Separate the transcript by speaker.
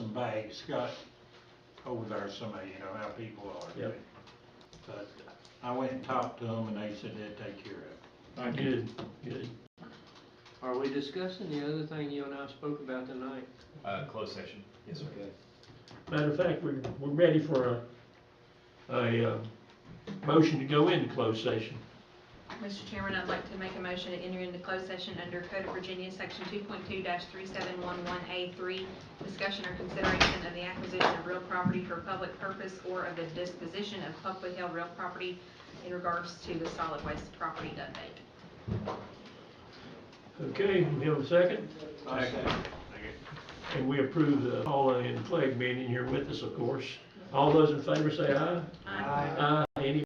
Speaker 1: hey, Scott, over there, somebody, you know, how people are.
Speaker 2: Yep.
Speaker 1: But I went and talked to them and they said they'd take care of it.
Speaker 2: Good, good.
Speaker 3: Are we discussing the other thing you and I spoke about tonight?
Speaker 4: Uh, closed session, yes, sir.
Speaker 2: Matter of fact, we're, we're ready for a, a, uh, motion to go into closed session.
Speaker 5: Mr. Chairman, I'd like to make a motion to enter into closed session under Code of Virginia, Section 2.2-3711A3, discussion or consideration of the acquisition of real property for public purpose or of the disposition of publicly held real property in regards to the solid waste property update.
Speaker 2: Okay, we have a second,
Speaker 1: I said, "Okay."
Speaker 2: and we approve the Paula and Clegg meeting. You're with us, of course. All those in favor say aye.
Speaker 5: Aye.
Speaker 2: Aye.